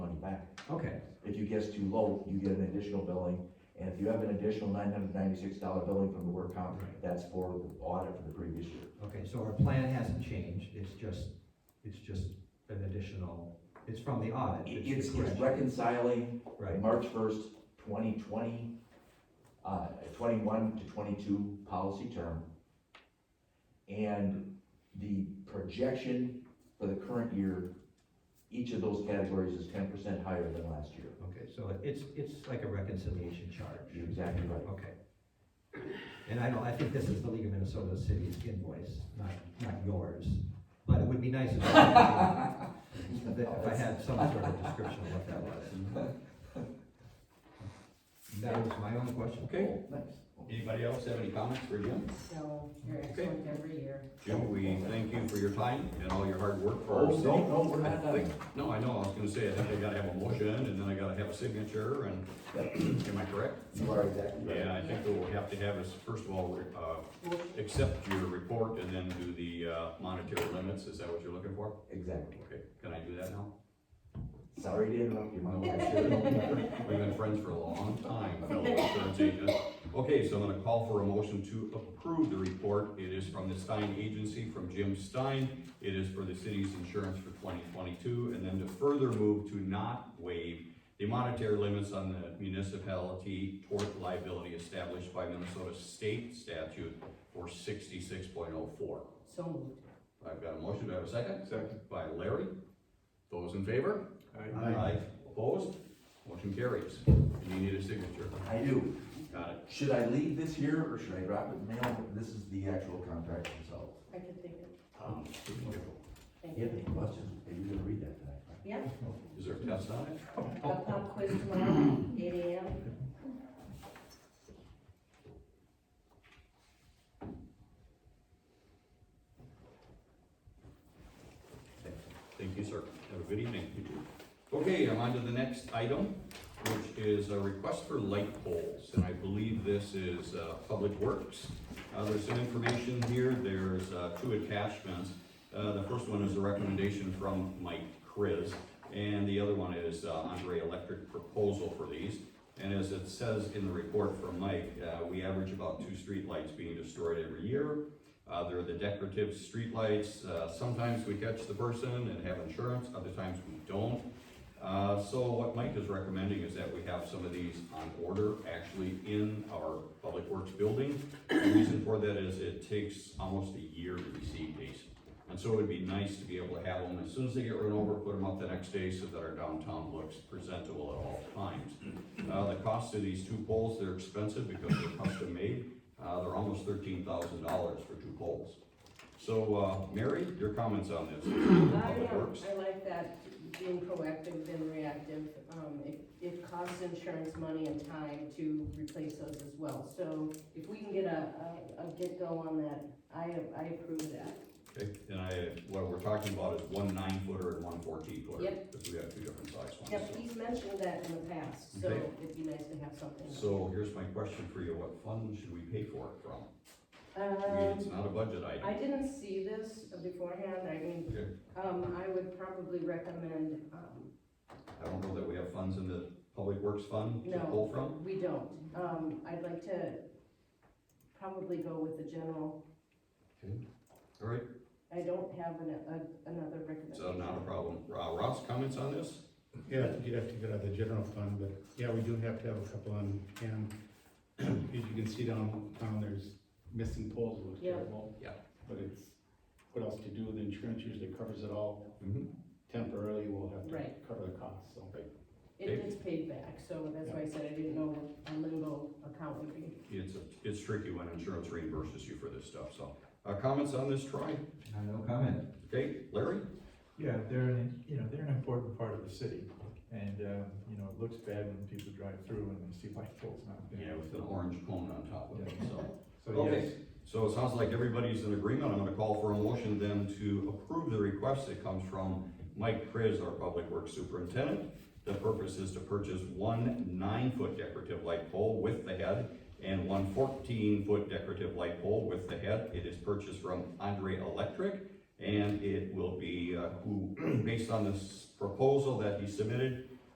Okay, If you guess too low, you get an additional billing, and if you have an additional nine hundred ninety-six dollar billing from the work comp, Right. that's for the audit for the previous year. okay, so our plan hasn't changed, it's just, it's just an additional, it's from the audit. It- the It's, it's correction. reconciling Right, March first, twenty twenty, uh, twenty-one to twenty-two policy term. And the projection for the current year, each of those categories is ten percent higher than last year. okay, so it's, it's like a reconciliation You're charge, exactly right. okay. And I don't, I think this is the League of Minnesota Cities invoice, not, not yours, but it would be nice if I if I had some sort of description of what that was. That was my own question. Okay, Nice. anybody else have any comments for Jim? So you're Okay. excellent every year. Jim, we thank you for your time and all your hard work for Oh, our no, city. no, we're not I done. think- No, I know, I was gonna say, I think I gotta have a motion, and then I gotta have a signature, and, am I correct? You are exactly right. Yeah, I think that we'll have to have is, first of all, uh, accept your report and then do the, uh, monetary limits, is that what you're looking for? Exactly. Okay, can I do that now? Sorry to interrupt you, my No, wife. I shouldn't. We've been friends for a long time, fellow insurance agent. Okay, so I'm gonna call for a motion to approve the report. It is from the Stein Agency, from Jim Stein. It is for the city's insurance for twenty twenty-two, and then to further move to not waive the monetary limits on the municipality tort liability established by Minnesota state statute for sixty-six point oh four. So moved. I've got a motion, do I have a second? Second. By Larry. Those in favor? Aye. Opposed? Motion carries. And you need a signature. I do. Got it. Should I leave this here or should I drop it in the mail? This is the actual contract themselves. I could think of, Um, thank You have any you. questions? Are you gonna read that tonight? right? Yeah, Is there a test on it? a pop quiz tomorrow, eight AM. Thank you, sir. Have a good evening. Okay, I'm on to the next item, which is a request for light poles, and I believe this is, uh, Public Works. Uh, there's some information here, there's, uh, two attachments. Uh, the first one is a recommendation from Mike Kriz, and the other one is, uh, Andre Electric proposal for these. And as it says in the report from Mike, uh, we average about two streetlights being destroyed every year. Uh, they're the decorative streetlights, uh, sometimes we catch the person and have insurance, other times we don't. Uh, so what Mike is recommending is that we have some of these on order, actually in our Public Works building. The reason for that is it takes almost a year to receive these. And so it would be nice to be able to have them, as soon as they get run over, put them up the next day so that our downtown looks presentable at all times. Uh, the cost of these two poles, they're expensive because they're custom made, uh, they're almost thirteen thousand dollars for two poles. So, uh, Mary, your comments on this? I Public know, Works? I like that, being proactive than reactive. Um, it, it costs insurance money and time to replace those as well. So if we can get a, a, a get-go on that, I, I approve that. Okay, and I, what we're talking about is one nine footer and one fourteen footer. Yep. Because we have two different size Yep, ones. he's mentioned that in the past, so Okay. it'd be nice to have something. so. So here's my question for you, what fund should we pay for it from? I mean, Um, it's not a budget I item. didn't see this beforehand, I mean, Okay, Um, I would probably recommend, um, I don't know that we have funds in the Public Works Fund to No. pull from. we don't, um, I'd like to probably go with the general, All right, I don't have an, a, another recommendation. so not a problem. Uh, Ross, comments on this? Yeah, you'd have to get out of the general fund, but yeah, we do have to have a couple on hand. As you can see down, down there's missing poles, it looks Yeah. terrible. Yeah. But it's, what else to do, the insurance usually covers it all, Mm-hmm. temporarily we'll have Right. to cover the cost, so. It gets paid back, so that's why I said I didn't know what a limbo account would be. It's, a- it's tricky when insurance reimburses you for this stuff, so. Uh, comments on this, Troy? Uh, No comment. Okay, Larry? Yeah, they're, an you know, they're an important part of the city, and, um, you know, it looks bad when people drive through and they see light poles not there. With an orange cone on top of it, so. So, Okay. yes, So it sounds like everybody's in agreement. I'm gonna call for a motion then to approve the request that comes from Mike Kriz, our Public Works Superintendent. The purpose is to purchase one nine-foot decorative light pole with the head and one 14 fourteen-foot decorative light pole with the head. It is purchased from Andre Electric, and it will be, uh, who, based on this proposal that he submitted,